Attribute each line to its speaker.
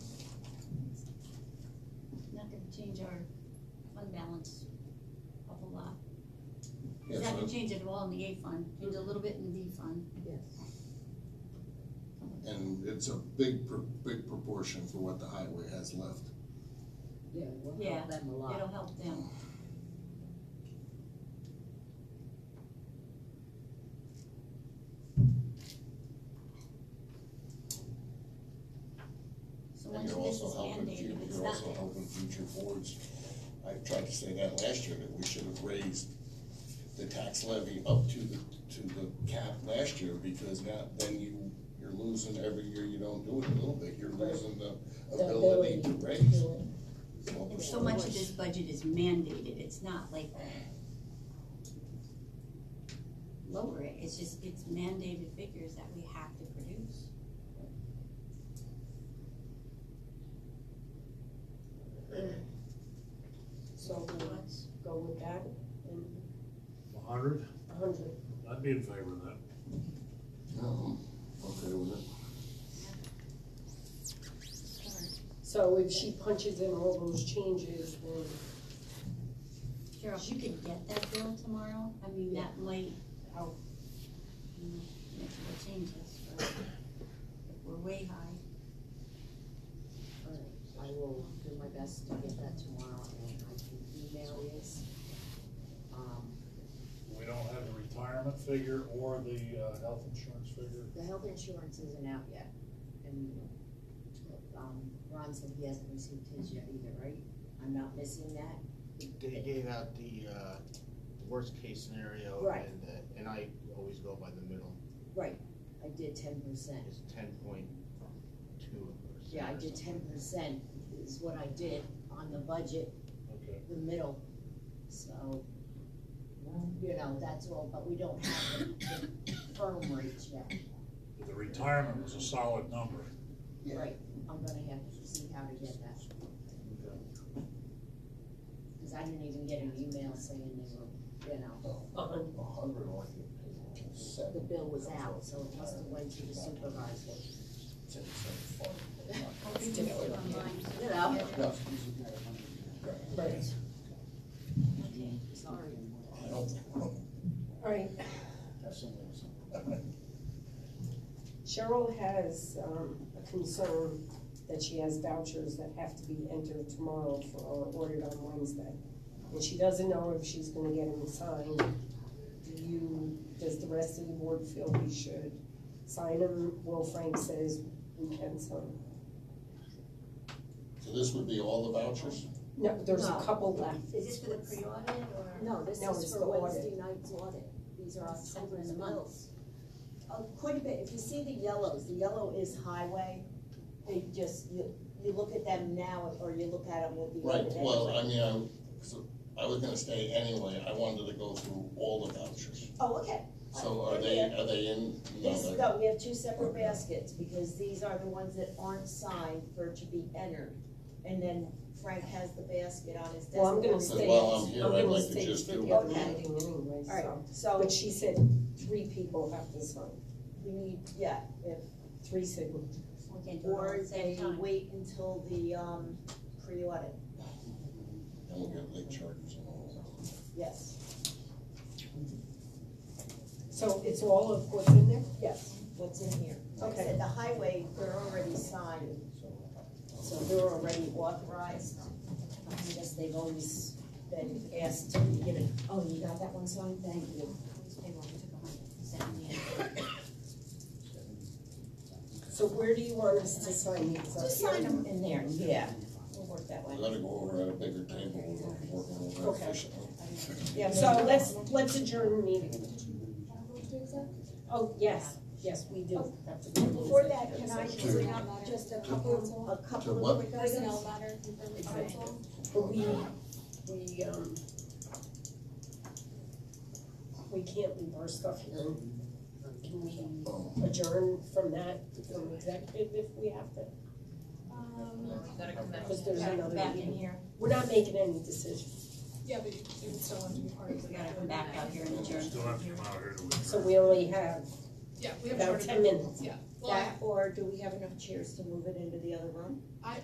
Speaker 1: change our fund balance a whole lot.
Speaker 2: Yeah,
Speaker 1: Cause I
Speaker 2: so
Speaker 1: can change it all in the A fund, change a little bit in the D fund.
Speaker 3: Yes.
Speaker 2: And it's a big, pro- big proportion for what the highway has left.
Speaker 3: Yeah, we'll
Speaker 1: Yeah,
Speaker 3: help them a lot.
Speaker 1: It'll help them. So
Speaker 2: And
Speaker 1: once
Speaker 2: you're
Speaker 1: you get
Speaker 2: also
Speaker 1: this
Speaker 2: helping,
Speaker 1: Band-Aid,
Speaker 2: fu-
Speaker 1: if it's
Speaker 2: you're
Speaker 1: not
Speaker 2: also helping future boards. I tried to say that last year, that we should have raised the tax levy up to the, to the cap last year, because now, then you, you're losing every year you don't do it a little bit, you're
Speaker 4: Right.
Speaker 2: losing the
Speaker 4: The
Speaker 2: ability to
Speaker 4: ability
Speaker 2: raise.
Speaker 4: do it.
Speaker 2: Well,
Speaker 1: So much of this budget is mandated, it's not like lower it, it's just, it's mandated figures that we have to produce.
Speaker 4: So we'll
Speaker 1: Otherwise,
Speaker 4: go with that and
Speaker 5: A hundred,
Speaker 4: a hundred.
Speaker 5: I'd be in favor of that.
Speaker 2: Um, Okay with it.
Speaker 4: So if she punches in all those changes, then
Speaker 1: Cheryl, if you could get that bill tomorrow, I mean, that might help, you know, make the changes, but if we're way high,
Speaker 3: All right, I will do my best to get that tomorrow and I can email you. Um,
Speaker 5: We don't have the retirement figure or the, uh, health insurance figure.
Speaker 3: the health insurance isn't out yet and, um, Ron said he hasn't received his yet either, right? I'm not missing that?
Speaker 6: They gave out the, uh, worst case scenario
Speaker 3: Right.
Speaker 6: and, the- and I always go by the middle,
Speaker 3: Right, I did ten percent.
Speaker 6: it's ten point two percent.
Speaker 3: Yeah, I did ten percent is what I did on the budget
Speaker 5: Okay.
Speaker 3: the middle, so, you know, that's all, but we don't have the the firm rates yet.
Speaker 5: The retirement was a solid number.
Speaker 2: Yeah.
Speaker 3: Right, I'm gonna have to see how to get that, cause I didn't even get an email saying they were, you know,
Speaker 4: a hundred.
Speaker 2: A hundred or like
Speaker 3: the
Speaker 2: seven,
Speaker 3: bill was out, so it must have went to the supervisor.
Speaker 2: ten, seven, five.
Speaker 1: hoping to get it online.
Speaker 3: You know,
Speaker 2: No,
Speaker 4: Right.
Speaker 1: Okay,
Speaker 3: sorry.
Speaker 2: I don't-
Speaker 4: All right, Cheryl has, um, a concern that she has vouchers that have to be entered tomorrow for, or ordered on Wednesday. And she doesn't know if she's gonna get them signed. Do you, does the rest of the board feel we should sign them? Will Frank says we can sign. 'em.
Speaker 2: So this would be all the vouchers?
Speaker 4: No, there's a
Speaker 3: No.
Speaker 4: couple left.
Speaker 1: Is this for the pre-audit or?
Speaker 3: No, this
Speaker 4: No, it's
Speaker 3: is
Speaker 4: the
Speaker 3: for
Speaker 4: audit.
Speaker 3: Wednesday night's audit, these are
Speaker 1: Somewhere in
Speaker 3: October's
Speaker 1: the month.
Speaker 3: bills. Oh, quite a bit, if you see the yellows, the yellow is highway, they just, you, you look at them now, or you look at them with the.
Speaker 2: Right,
Speaker 3: audit
Speaker 2: well,
Speaker 3: anyway.
Speaker 2: I mean, I, so I was gonna stay anyway, I wanted to go through all the vouchers.
Speaker 3: Oh, okay,
Speaker 2: So are they, are they in? no,
Speaker 3: these,
Speaker 2: they're-
Speaker 3: no, we have two separate baskets, because these are the ones that aren't signed for to be entered. And then Frank has the basket on his desk.
Speaker 4: Well, I'm gonna
Speaker 2: So
Speaker 4: stay,
Speaker 2: while I'm
Speaker 4: I'm
Speaker 2: here, I'd
Speaker 4: gonna
Speaker 2: like to
Speaker 4: stay
Speaker 2: just
Speaker 4: for
Speaker 2: do
Speaker 4: the
Speaker 2: it.
Speaker 4: other meeting anyway,
Speaker 3: All right,
Speaker 4: so.
Speaker 3: so
Speaker 4: But she said three people have to sign,
Speaker 3: we need, yeah, if,
Speaker 4: three signatures.
Speaker 1: We can do it all
Speaker 3: or
Speaker 1: at the same
Speaker 3: they
Speaker 1: time.
Speaker 3: wait until the, um, pre-audit,
Speaker 2: And we'll get late charges and all that.
Speaker 3: yes,
Speaker 4: So it's all of what's in there?
Speaker 3: yes, what's in here. Like I
Speaker 4: Okay.
Speaker 3: said, the highway, they're already signed, so they're already authorized. I guess they've always been asked to get it, oh, you got that one signed, thank you.
Speaker 1: They won't take a hundred percent in the end.
Speaker 4: So where do you want us to sign these? Up
Speaker 3: Just
Speaker 4: here?
Speaker 3: sign them in there, yeah, we'll work that
Speaker 2: We
Speaker 3: way.
Speaker 2: gotta go over at a bigger table, we're working over
Speaker 4: Okay.
Speaker 2: efficiently.
Speaker 4: Yeah, so let's, let's adjourn the meeting. Oh, yes, yes, we do. have to go into
Speaker 7: Before
Speaker 4: executive
Speaker 7: Oh. that, can I
Speaker 4: session.
Speaker 7: bring up just a couple of
Speaker 3: A
Speaker 2: To
Speaker 3: couple of
Speaker 2: what?
Speaker 3: quick items.
Speaker 7: personnel matter from the council?
Speaker 4: But we, we, um, we can't leave our stuff here. Can we
Speaker 2: Oh,
Speaker 4: adjourn from that, from executive if we have to?
Speaker 7: Um,
Speaker 4: Because there's another
Speaker 1: Back in
Speaker 4: meeting.
Speaker 1: here,
Speaker 4: We're not making any decisions,
Speaker 7: yeah, but you would still want to be part of the.
Speaker 1: we gotta come back out here and adjourn.
Speaker 5: Still have to come out here to adjourn.
Speaker 4: so we only have
Speaker 7: Yeah, we have.
Speaker 4: about
Speaker 7: part of
Speaker 4: ten minutes.
Speaker 7: Yeah, well,
Speaker 3: That, or do we have enough chairs to move it into the other room?